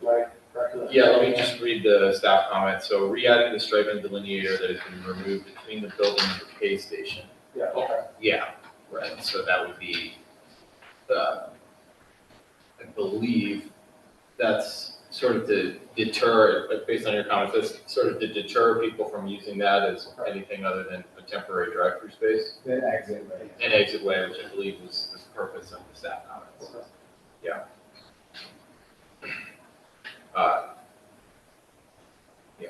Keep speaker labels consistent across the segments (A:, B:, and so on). A: Do I correct that?
B: Yeah, let me just read the staff comment. So re-adding the stripe and delineator that has been removed between the building and the pay station.
A: Yeah, okay.
B: Yeah, right, so that would be, uh, I believe that's sort of to deter, like, based on your comments, that's sort of to deter people from using that as anything other than a temporary drive-through space.
A: Then exit, right?
B: And exit way, which I believe was the purpose of the staff comments.
A: Okay.
B: Uh, Yeah.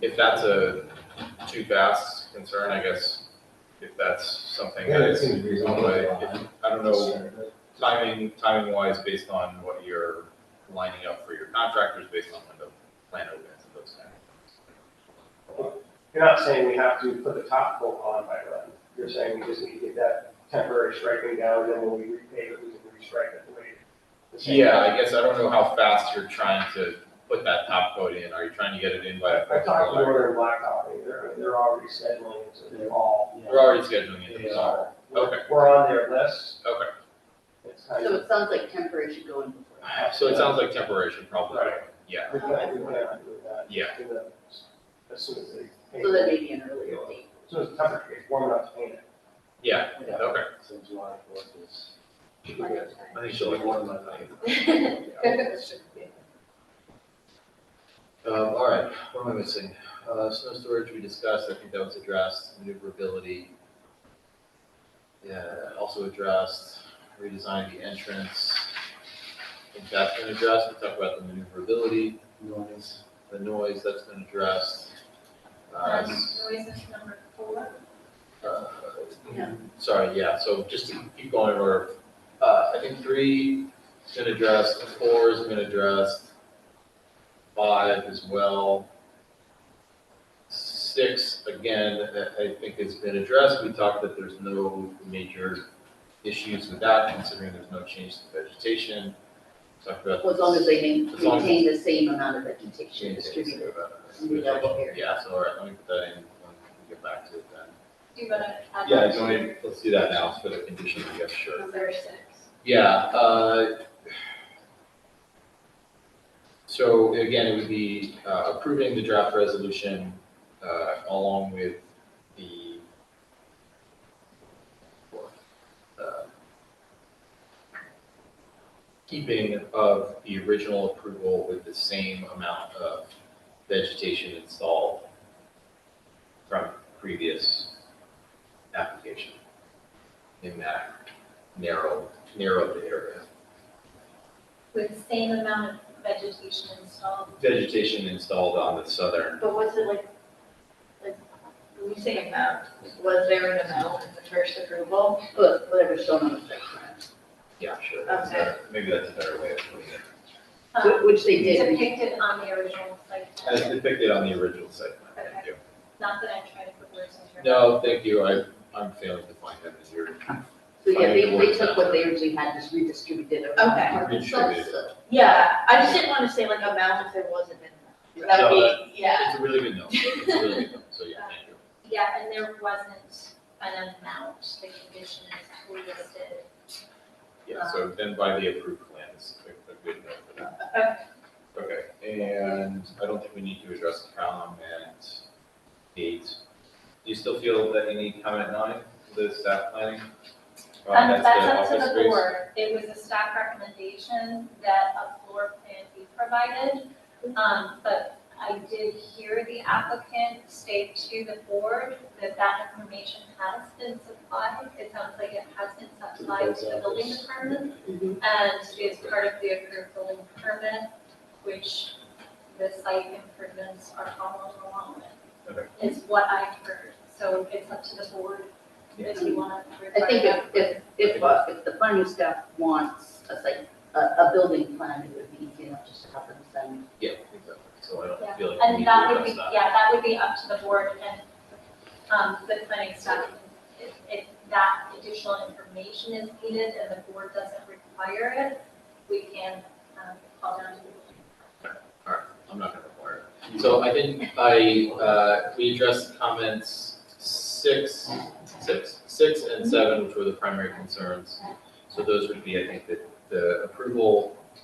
B: If that's a too fast concern, I guess, if that's something
C: Yeah,
B: that
C: it
B: is,
C: seems reasonable.
B: If- I don't know, timing, timing wise, based on what you're lining up for your contractors, based on when the plan opens and those kind of things.
A: You're not saying we have to put the top coat on by then. You're saying we just need to get that temporary striping down, and then when we repave it, we can restripe it the way. the same.
B: Yeah, I guess I don't know how fast you're trying to put that top coat in. Are you trying to get it in by?
A: I talked to Northern Blacktop, and they're, they're already scheduling it to the fall.
B: We're already scheduling it,
A: Yeah.
B: so, Okay.
A: We're on their list.
B: okay.
A: It's kind
D: So
A: of,
D: it sounds like temporary should go in before.
B: So it sounds like temporary should probably,
A: Right.
B: yeah,
A: we plan, we plan on doing that.
B: yeah,
A: in the- As soon as they paint,
D: So
A: it.
D: that may be an earlier date.
A: as soon as the temperature gets warm enough to paint it.
B: yeah, okay.
C: So July fourth is.
B: I think
C: Should
B: so.
C: be one month later.
B: Um, all right, what am I missing? Uh, snow storage we discussed, I think that was addressed, maneuverability. Yeah, also addressed, redesign the entrance. I think that's been addressed, we talked about the maneuverability,
C: Noise.
B: the noise, that's been addressed. Uh, s-
E: Noise is number four.
B: uh,
D: Yeah.
B: Sorry, yeah, so just to keep going over, uh, I think three has been addressed, four has been addressed, five as well. Six, again, I, I think has been addressed, we talked that there's no major issues with that, considering there's no change to vegetation. Talked about.
D: Well, as long as they main-
B: As long as-
D: maintain the same amount of vegetation
B: Change
D: distributed.
B: to-
D: in the double area.
B: Yeah, so all right, let me put that in, when we get back to it then.
E: Do you want to add?
B: Yeah,
E: that
B: do you want me- let's do that now for the condition, I guess,
E: to
B: sure.
E: Number six.
B: Yeah, uh. So again, it would be uh, approving the draft resolution, uh, along with the. uh, Keeping of the original approval with the same amount of vegetation installed from previous application in that narrow, narrowed area.
E: With same amount of vegetation installed,
B: Vegetation installed on the southern,
E: but was it like, like, when you say amount, was there an amount in the first approval?
D: But whatever's shown on the site
B: yeah, sure. that's
E: Okay.
B: a- Maybe that's a better way of putting it.
D: plan,
E: Um,
D: whi- which they did.
E: Depicted on the original site
B: As
E: plan,
B: depicted on the original site plan, thank you.
E: not that I'm trying to put words in your
B: No,
E: mouth.
B: thank you, I, I'm failing to find that as your.
D: So yeah, they, they took what they originally had, just redistributed it.
E: Okay.
B: Redistributed.
E: Yeah, I just didn't want to say like amount if there wasn't an amount. That
B: No,
E: would be, yeah.
B: It's a really good note, it's a really good note, so yeah, thank you.
E: Yeah, and there wasn't an amount, the condition is listed.
B: Yeah, so
E: Uh-huh.
B: then by the approved plans, a, a good note for that. Okay, and I don't think we need to address comment eight. Do you still feel that you need comment nine, the staff planning? Uh,
E: Um,
B: that's the
E: that's up
B: office
E: to the
B: space.
E: board. It was a staff recommendation that a floor plan be provided. Um, but I did hear the applicant state to the board that that information has been supplied. It sounds like it has been supplied to the building department.
D: Mhm.
E: And is part of the approved building permit, which the site improvements are following along with.
B: Okay.
E: Is what I heard, so it's up to the board if you want to.
D: I think if, if, if, uh, if the planning staff wants a site, a, a building plan, it would be easy enough just to have them send.
B: Yeah, exactly, so I don't
E: Yeah,
B: feel like we need
E: And
B: to
E: that would
B: address
E: be,
B: that.
E: yeah, that would be up to the board and, um, the planning staff. If, if that additional information is needed and the board doesn't require it, we can, um, call down to the board.
B: I'm not gonna require it. So I think I, uh, we addressed comments six, six, six and seven, which were the primary concerns. So those would be, I think, the, the approval